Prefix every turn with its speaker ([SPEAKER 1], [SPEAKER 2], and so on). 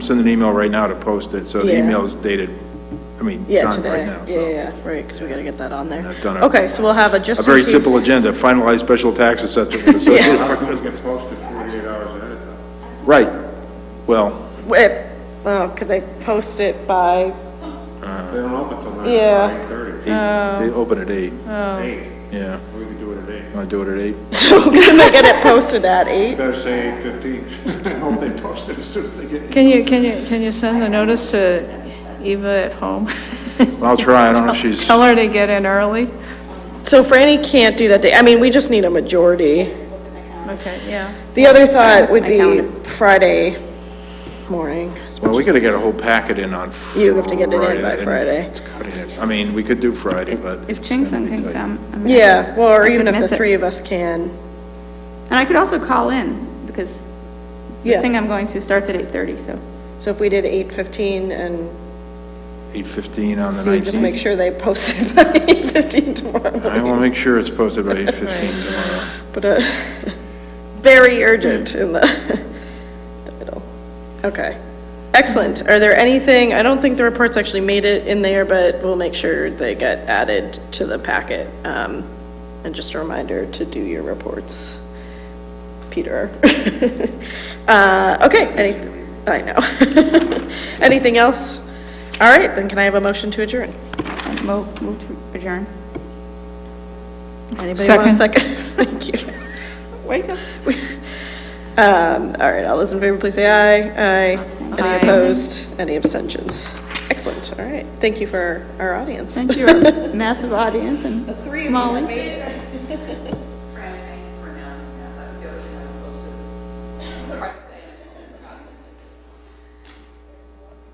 [SPEAKER 1] send an email right now to post it, so the
[SPEAKER 2] Yeah.
[SPEAKER 1] email is dated, I mean,
[SPEAKER 2] Yeah,
[SPEAKER 1] done right
[SPEAKER 2] today.
[SPEAKER 1] now,
[SPEAKER 2] Yeah,
[SPEAKER 1] so.
[SPEAKER 2] yeah, yeah, right, because we got to get that on there.
[SPEAKER 1] Not done it.
[SPEAKER 2] Okay, so we'll have a
[SPEAKER 1] A
[SPEAKER 2] just in
[SPEAKER 1] very
[SPEAKER 2] case-
[SPEAKER 1] simple agenda, finalize special tax assessment for the associated
[SPEAKER 3] It gets posted 48 hours ahead of time.
[SPEAKER 1] Right, well,
[SPEAKER 2] Wait, oh, could they post it by,
[SPEAKER 3] They don't open till nine,
[SPEAKER 2] Yeah.
[SPEAKER 3] eight thirty.
[SPEAKER 1] eight- they
[SPEAKER 2] Um,
[SPEAKER 1] open at eight,
[SPEAKER 2] uh,
[SPEAKER 3] Eight.
[SPEAKER 1] yeah.
[SPEAKER 3] We could do it at eight.
[SPEAKER 1] Want to do it at eight?
[SPEAKER 2] so can they get it posted at eight?
[SPEAKER 3] Better say eight fifteen. I hope they post it as soon as they get.
[SPEAKER 4] Can you, can you, can you send the notice to Eva at home?
[SPEAKER 1] I'll try, I don't know if she's,
[SPEAKER 4] Tell her to get in early?
[SPEAKER 2] So Franny can't do that day, I mean, we just need a majority.
[SPEAKER 4] Okay, yeah.
[SPEAKER 2] The other thought would be Friday morning. as
[SPEAKER 1] well,
[SPEAKER 2] much
[SPEAKER 1] we
[SPEAKER 2] as-
[SPEAKER 1] gotta get a whole packet in on Friday.
[SPEAKER 2] You have to get it in by
[SPEAKER 1] and
[SPEAKER 2] Friday.
[SPEAKER 1] it's cutting it. I mean, we could do Friday, but.
[SPEAKER 5] If
[SPEAKER 1] it's
[SPEAKER 5] Chingson
[SPEAKER 1] gonna be
[SPEAKER 5] can
[SPEAKER 1] tight.
[SPEAKER 5] come. I mean,
[SPEAKER 2] Yeah, well,
[SPEAKER 5] I
[SPEAKER 2] or
[SPEAKER 5] could
[SPEAKER 2] even if
[SPEAKER 5] miss
[SPEAKER 2] the
[SPEAKER 5] it.
[SPEAKER 2] three of us can,
[SPEAKER 5] And I could also call in, because the
[SPEAKER 2] Yeah.
[SPEAKER 5] thing I'm going to starts at 8:30, so.
[SPEAKER 2] so if we did eight fifteen and
[SPEAKER 1] 8:15 on the
[SPEAKER 2] see, just make
[SPEAKER 1] 19th.
[SPEAKER 2] sure they post it by eight fifteen tomorrow.
[SPEAKER 1] I will make sure it's posted by 8:15 tomorrow.
[SPEAKER 2] But uh, very urgent in the title. Okay. Excellent. Are there anything, I don't think the reports actually made it in there, but we'll make sure they get added to the packet. Um, And just a reminder to do your reports, Peter. Uh, Okay, any, I know. Anything else? All right, then can I have a motion to adjourn?
[SPEAKER 5] I mo- Move to adjourn.
[SPEAKER 2] Anybody want a
[SPEAKER 4] Second.
[SPEAKER 2] second? Thank you.
[SPEAKER 5] Wake up.
[SPEAKER 2] Um, all right, all those in favor, please say aye. Aye.
[SPEAKER 5] Aye.
[SPEAKER 2] Any opposed? Any abstentions? Excellent, all right. Thank you for our audience.
[SPEAKER 5] Thank you, our massive audience and Molly.